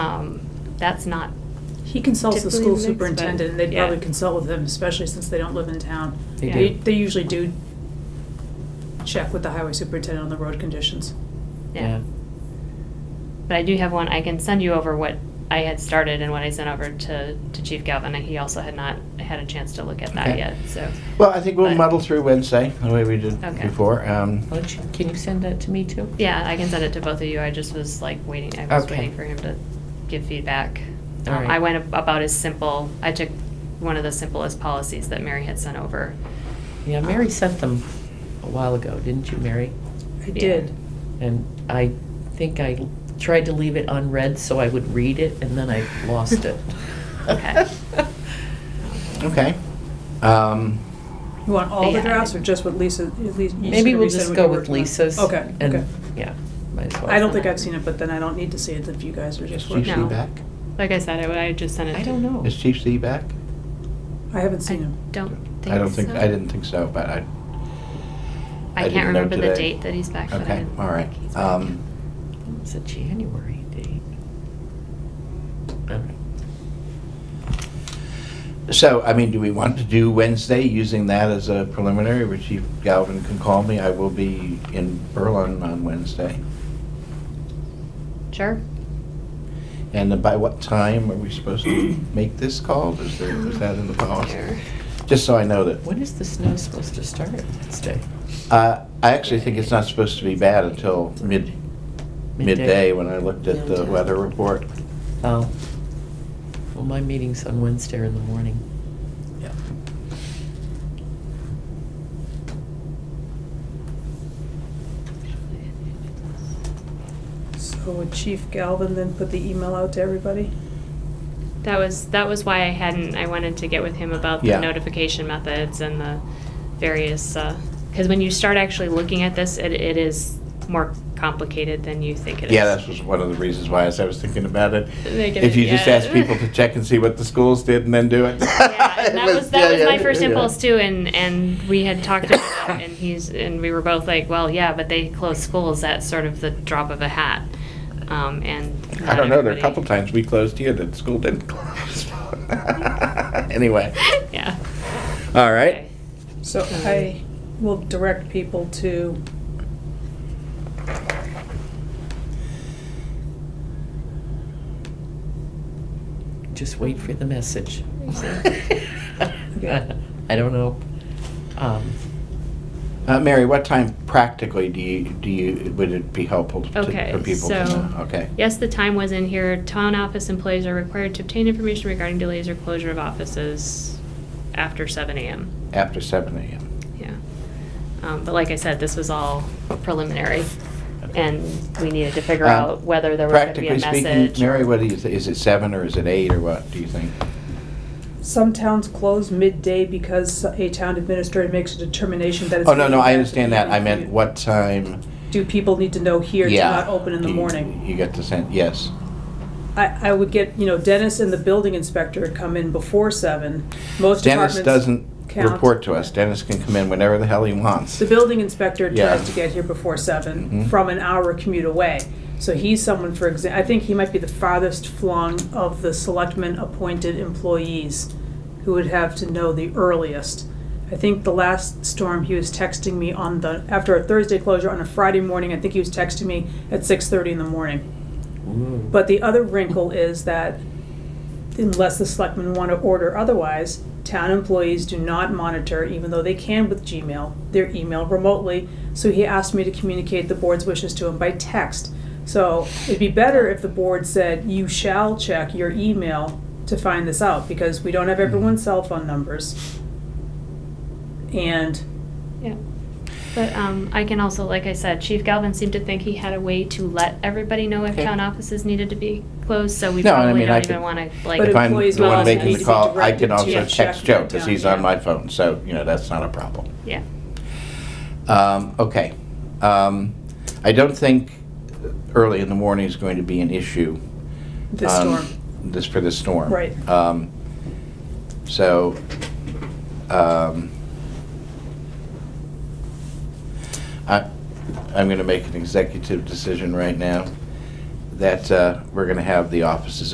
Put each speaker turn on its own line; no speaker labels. Um, That's not,
He consults the
Typically
school
mixed, but-
superintendent, and they'd
yeah.
probably consult with them, especially since they don't live in town.
They
Yeah.
They,
do.
they usually do check with the highway superintendent on the road conditions.
yeah. But I do have one, I can send you over what I had started and what I sent over to, to Chief Galvin, and he also had not had a chance to look at that
Okay.
yet, so.
Well, I think we'll
But-
muddle through Wednesday, the way we did
Okay.
before. Um,
Why don't you- Can you send that to me too?
Yeah, I can send it to both of you, I just was like waiting, I was
Okay.
waiting for him to give feedback.
All
Um,
right.
I went ab- about as simple, I took one of the simplest policies that Mary had sent over.
Yeah, Mary sent them a while ago, didn't you, Mary?
I
Yeah.
did.
And I think I tried to leave it unread so I would read it, and then I lost it.
Okay.
okay. Um,
You want all the
Yeah.
drafts or just what Lisa, at least? you
Maybe
said
we'll
you said
just
what
go
you
with
worked on.
Lisa's.
Okay,
and-
okay.
Yeah, might as well.
I don't think I've seen it, but then I don't need to see it if you guys are
is
just
Chief
working.
C
No.
back?
Like I said, I would- I just sent it.
I
to-
don't know.
Is Chief C back?
I haven't
I
seen him.
Oh. don't think
I don't think,
so.
I didn't think so, but I, I
I can't
didn't know
remember the
today.
date that he's back, but I
okay,
didn't
all right.
think he's back.
Um,
It's a January date. Um, All right.
So, I mean, do we want to do Wednesday, using that as a preliminary, where Chief Galvin can call me? I will be in Berlin on Wednesday.
Sure.
And by what time are we supposed to make this call? Is there, is that in the policy?
Here.
Just so I know that.
When is the snow supposed to start this day?
Uh, I actually think it's not supposed to be bad until mid, midday, when I looked at the
Midday.
weather report.
Oh. Well, my meeting's on Wednesday in the morning.
Yeah.
So would Chief Galvin then put the email out to everybody?
That was, that was why I hadn't, I wanted to get with him about the
Yeah.
notification methods and the various, because when you start actually looking at this, it, it is more complicated than you think it is.
Yeah, that was one of the reasons why, as I was thinking about it.
They get
If
it,
you just
yeah.
ask people to check and see what the schools did and then do it.
Yeah, and
It
that was, that was
yeah,
my
yeah,
first
yeah.
impulse too, and, and we had talked about it, and he's, and we were both like, well, yeah, but they close schools at sort of the drop of a hat, um, and.
I
not
don't know, there are a
everybody-
couple times we closed here that the school didn't close. Anyway,
Yeah.
all
Okay.
right.
So I will direct people to
Just wait for the message.
Yeah.
I don't know. Um,
Uh, Mary, what time practically do you, do you, would it be helpful to-
Okay,
for people to
so-
know? Okay,
Yes, the time was in here. Town office employees are required to obtain information regarding delays or closure of offices after seven AM.
after seven AM.
Yeah. Um, but like I said, this was all preliminary, and we needed to figure
Um,
out whether there was gonna be a
Practically
message.
speaking, Mary, what do you, thi- is it seven or is it eight or what, do you think?
Some towns close midday because a town administrator makes a determination that it's.
Oh, no, no, I
meeting
understand that, I meant
afternoon.
what time,
Do people need to know here to
yeah.
not open in the
you-
morning?
You get the sense, yes.
I, I would get, you know, Dennis and the building inspector come in before seven. Most departments.
Dennis doesn't
count.
report to us, Dennis can come in whenever the hell he wants.
The building inspector
Yeah.
tries to get here before seven
Mhm.
from an hour commute away. So he's someone, for exa, I think he might be the farthest flung of the selectmen appointed employees who would have to know the earliest. I think the last storm, he was texting me on the, after a Thursday closure on a Friday morning, I think he was texting me at six thirty in the morning.
ooh.
But the other wrinkle is that unless the selectmen want to order otherwise, town employees do not monitor, even though they can with Gmail, their email remotely. So he asked me to communicate the board's wishes to him by text. So it'd be better if the board said, you shall check your email to find this out, because we don't have everyone's cell phone numbers. And
Yeah. But um, I can also, like I said, Chief Galvin seemed to think he had a way to let everybody know if
Okay.
town offices needed to be closed, so we
No, and I
probably
mean, I
don't
could-
even want to,
But
like,
If I'm
employees
the
will
one
also
making
need to be
the call, I
directed
can
to
also
check
text
your
Joe, because
town,
he's on
yeah.
my phone, so, you know, that's not a problem.
yeah.
Um, okay. Um, I don't think early in the morning is going to be an issue.
this
um,
storm,
This, for this storm.
Right.
Um, so, um, I, I'm gonna make an executive decision right now that uh, we're going to have the offices